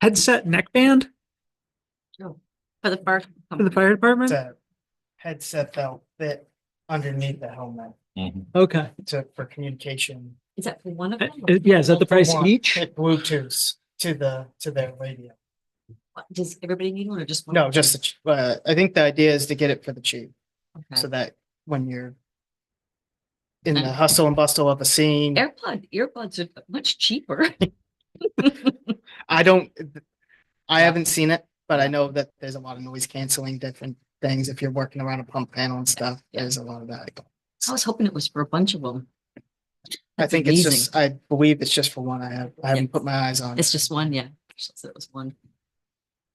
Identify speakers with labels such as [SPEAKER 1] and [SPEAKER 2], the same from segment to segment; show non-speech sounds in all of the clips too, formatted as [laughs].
[SPEAKER 1] headset neckband
[SPEAKER 2] For the first.
[SPEAKER 1] for the fire department?
[SPEAKER 3] It's a headset that'll fit underneath the helmet
[SPEAKER 1] Okay.
[SPEAKER 3] to, for communication.
[SPEAKER 2] Is that for one of
[SPEAKER 1] Uh,
[SPEAKER 2] them?
[SPEAKER 1] uh, Yeah, is that the price
[SPEAKER 3] One
[SPEAKER 1] each?
[SPEAKER 3] With Bluetooth to the, to their radio.
[SPEAKER 2] Does everybody need one or just? one?
[SPEAKER 3] No, just, the ch- uh, I think the idea is to get it for the chief
[SPEAKER 2] Okay.
[SPEAKER 3] so that when you're in the
[SPEAKER 2] And-
[SPEAKER 3] hustle and bustle of a scene,
[SPEAKER 2] Airplug, earbuds are much cheaper. [laughs]
[SPEAKER 3] I don't, I
[SPEAKER 2] Yeah.
[SPEAKER 3] haven't seen it, but I know that there's a lot of noise canceling different things. If you're working around a pump panel and stuff,
[SPEAKER 2] yeah.
[SPEAKER 3] there's a lot of that.
[SPEAKER 2] I was hoping it was for a bunch of them.
[SPEAKER 3] I
[SPEAKER 2] That's
[SPEAKER 3] think it's
[SPEAKER 2] amazing.
[SPEAKER 3] just, I believe it's just for one. I have, I haven't put my eyes
[SPEAKER 1] uh,
[SPEAKER 3] on.
[SPEAKER 2] It's
[SPEAKER 3] it.
[SPEAKER 2] just one, yeah. She said It was one.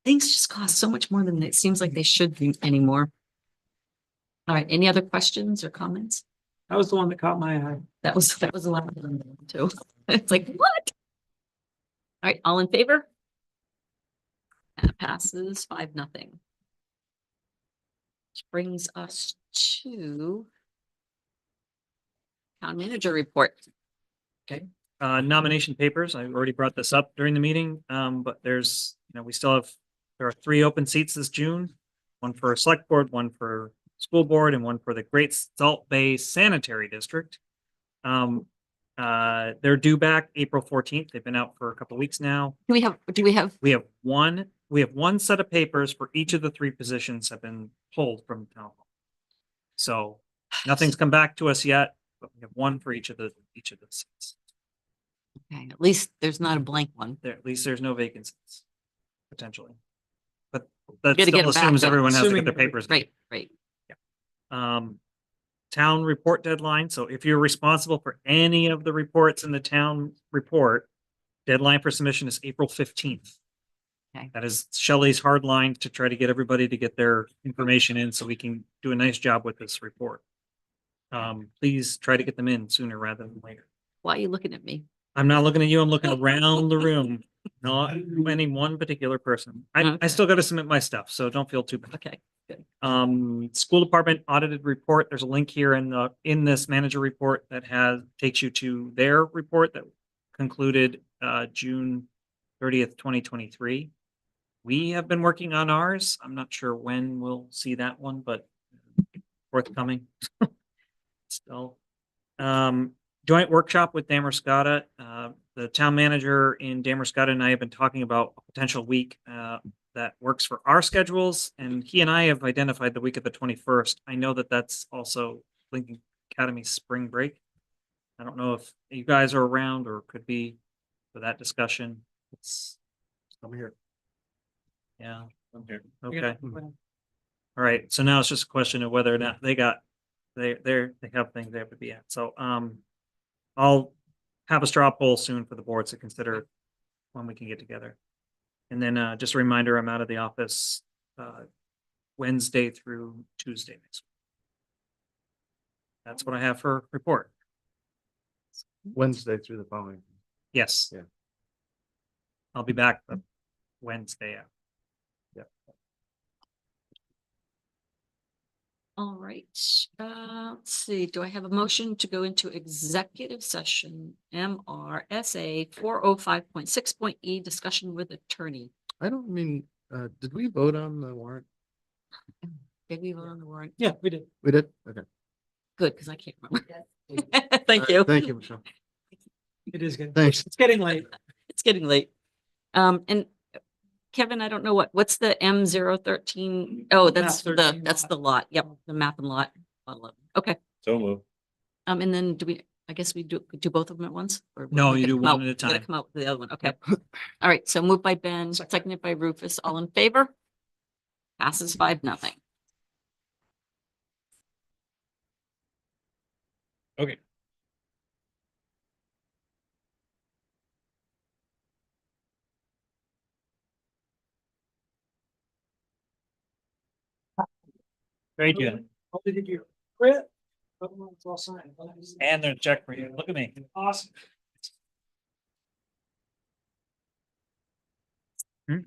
[SPEAKER 2] Things just cost so much more than it seems like they should be anymore. All right, any other questions or comments?
[SPEAKER 1] That was the one that caught my eye.
[SPEAKER 2] That was, that was a lot of them too. [laughs] It's like, what? All right, all in favor? That passes five, nothing. Which brings us to town manager report.
[SPEAKER 4] Uh, nomination papers, I already brought this up during the meeting, um, but there's, you know, we still have, there are three open seats this June. One for a select board, one for school board, and one for the Great Salt Bay Sanitary District. Um, uh, they're due back April fourteenth. They've been out for a couple weeks now.
[SPEAKER 2] Do we have, do we have,
[SPEAKER 4] We have one, we have one set of papers for each of the three positions have been pulled from town hall. So nothing's come back to us yet, but we have one for each of the, each of the seats.
[SPEAKER 2] okay, at least there's not a blank one.
[SPEAKER 4] there, at least there's no vacancies, potentially. But that
[SPEAKER 2] gotta get
[SPEAKER 4] still
[SPEAKER 2] 'em back,
[SPEAKER 4] assumes
[SPEAKER 2] though.
[SPEAKER 4] everyone has to
[SPEAKER 1] Assuming
[SPEAKER 4] get their
[SPEAKER 1] every-
[SPEAKER 4] papers.
[SPEAKER 2] Right, right.
[SPEAKER 4] Um, town report deadline, so if you're responsible for any of the reports in the town report, deadline for submission is April fifteenth.
[SPEAKER 2] Okay.
[SPEAKER 4] That is Shelley's hard line to try to get everybody to get their information in so we can do a nice job with this report. Um, please try to get them in sooner rather than later.
[SPEAKER 2] Why are you looking at me?
[SPEAKER 4] I'm not looking at you, I'm looking around the room, not any one particular person. I, I
[SPEAKER 2] Okay.
[SPEAKER 4] still gotta submit my stuff, so don't feel too bad.
[SPEAKER 2] Okay,
[SPEAKER 4] Um, school department audited report, there's a link here in the, in this manager report that has, takes you to their report that concluded, uh, June thirtieth, twenty twenty-three. We have been working on ours, I'm not sure when we'll see that one, but forthcoming. [laughs] Still. Um, joint workshop with Damerscotta. Uh, the town manager in Damerscotta and I have been talking about a potential week uh, that works for our schedules. And he and I have identified the week of the twenty-first. I know that that's also Lincoln Academy spring break. I don't know if you guys are around or could be for that discussion. It's,
[SPEAKER 5] I'm here.
[SPEAKER 4] yeah,
[SPEAKER 5] I'm here.
[SPEAKER 4] okay. All right, so now it's just a question of whether or not they got, they, they're, they have things they have to be at, so, um. I'll have a straw poll soon for the boards to consider when we can get together. And then, uh, just a reminder, I'm out of the office, uh, Wednesday through Tuesday next. week. That's what I have for report,
[SPEAKER 5] Wednesday through the following.
[SPEAKER 4] yes.
[SPEAKER 5] Yeah.
[SPEAKER 4] I'll be back the Wednesday.
[SPEAKER 2] all right. Uh, let's see, do I have a motion to go into executive session? MRSA four oh five point six point E, discussion with attorney.
[SPEAKER 5] I don't mean, uh, did we vote on the warrant?
[SPEAKER 2] Did we vote on the warrant?
[SPEAKER 1] Yeah, we did.
[SPEAKER 5] We did? Okay.
[SPEAKER 2] Good, because I can't remember. [laughs] Thank you.
[SPEAKER 5] All right, Thank you, Michelle.
[SPEAKER 1] It is getting,
[SPEAKER 5] Thanks.
[SPEAKER 1] it's getting late.
[SPEAKER 2] It's getting late. Um, and uh, Kevin, I don't know what, what's the M zero thirteen? Oh, that's the,
[SPEAKER 1] 13
[SPEAKER 2] that's
[SPEAKER 1] lot.
[SPEAKER 2] the lot. Yep, the map and lot. lot eleven. Okay.
[SPEAKER 5] So move.
[SPEAKER 2] Um, and then do we, I guess we do, do both of them at once? or we
[SPEAKER 4] No,
[SPEAKER 2] gotta
[SPEAKER 4] you do
[SPEAKER 2] come
[SPEAKER 4] one at
[SPEAKER 2] out-
[SPEAKER 4] a
[SPEAKER 2] we gotta
[SPEAKER 4] time.
[SPEAKER 2] Come out with the other one. Okay. [laughs] All right. So moved by Ben, seconded by Rufus. All in favor? Passes five, nothing.
[SPEAKER 4] Great,
[SPEAKER 1] Hopefully Oh, did you quit? But it's all signed.
[SPEAKER 4] And there's Jack for you, look at me.
[SPEAKER 1] Awesome.
[SPEAKER 4] Hmm.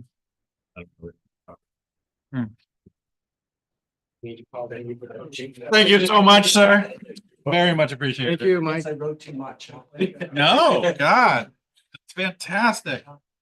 [SPEAKER 6] Thank you so much, sir. Very much appreciated.
[SPEAKER 5] Thank you, Mike.
[SPEAKER 6] No, God, it's fantastic.